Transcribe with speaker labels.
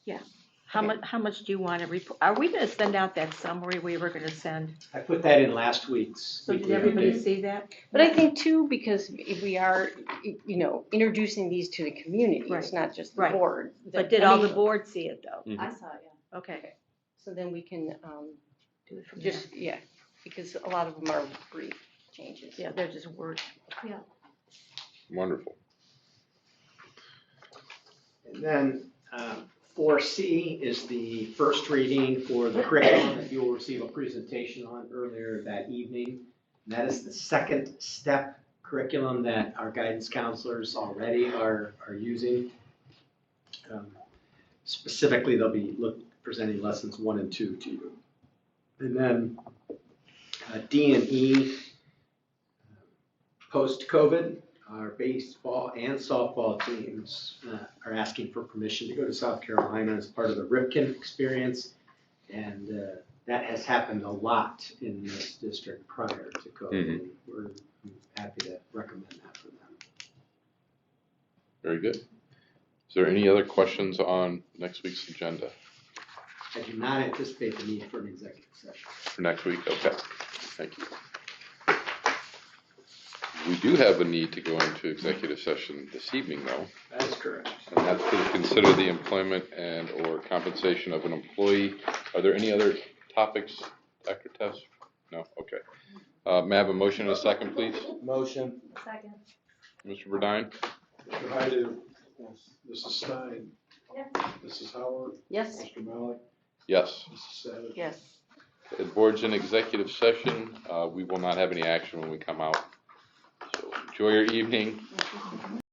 Speaker 1: How much, how much do you want to report? Are we going to send out that summary we were going to send?
Speaker 2: I put that in last week's.
Speaker 1: So did
Speaker 2: weekly
Speaker 1: everybody
Speaker 2: update.
Speaker 1: see that?
Speaker 3: But I think too, because if we are, you know, introducing these to the community, it's
Speaker 1: Right.
Speaker 3: not just the
Speaker 1: Right.
Speaker 3: board.
Speaker 1: But did all the
Speaker 3: board?
Speaker 1: board see it though?
Speaker 4: I saw it, yeah.
Speaker 1: Okay.
Speaker 3: So then we can, um,
Speaker 1: Do it from there.
Speaker 3: just, yeah, because a lot of them are brief changes.
Speaker 1: Yeah, they're just words.
Speaker 5: Wonderful.
Speaker 2: And then um, four C is the first reading for the curriculum that you will receive a presentation on earlier that evening. And that is the second step curriculum that our guidance counselors already are, are using. Um, Specifically, they'll be look, presenting lessons one and two to you. And then uh, D and E, uh, post-COVID, our baseball and softball teams uh, are asking for permission to go to South Carolina as part of the Ripken experience. And uh, that has happened a lot in this district prior to COVID. We're happy to recommend that for them.
Speaker 5: Very good. Is there any other questions on next week's agenda
Speaker 2: I do not anticipate the need for an executive session.
Speaker 5: for next week? Okay, thank you. We do have a need to go into executive session this evening though,
Speaker 2: That is correct.
Speaker 5: and that's to consider the employment and or compensation of an employee. Are there any other topics, Dr. Tess? No, okay. Uh, may I have a motion and a second, please?
Speaker 6: Motion.
Speaker 4: Second.
Speaker 5: Mr. Burdine?
Speaker 6: If I do, Mrs. Stein.
Speaker 4: Yes.
Speaker 6: Mrs. Howard,
Speaker 3: Yes,
Speaker 6: Mr. Malik,
Speaker 5: Yes.
Speaker 6: Mrs. Savage.
Speaker 3: yes.
Speaker 5: The board's in executive session. Uh, we will not have any action when we come out. So Enjoy your evening.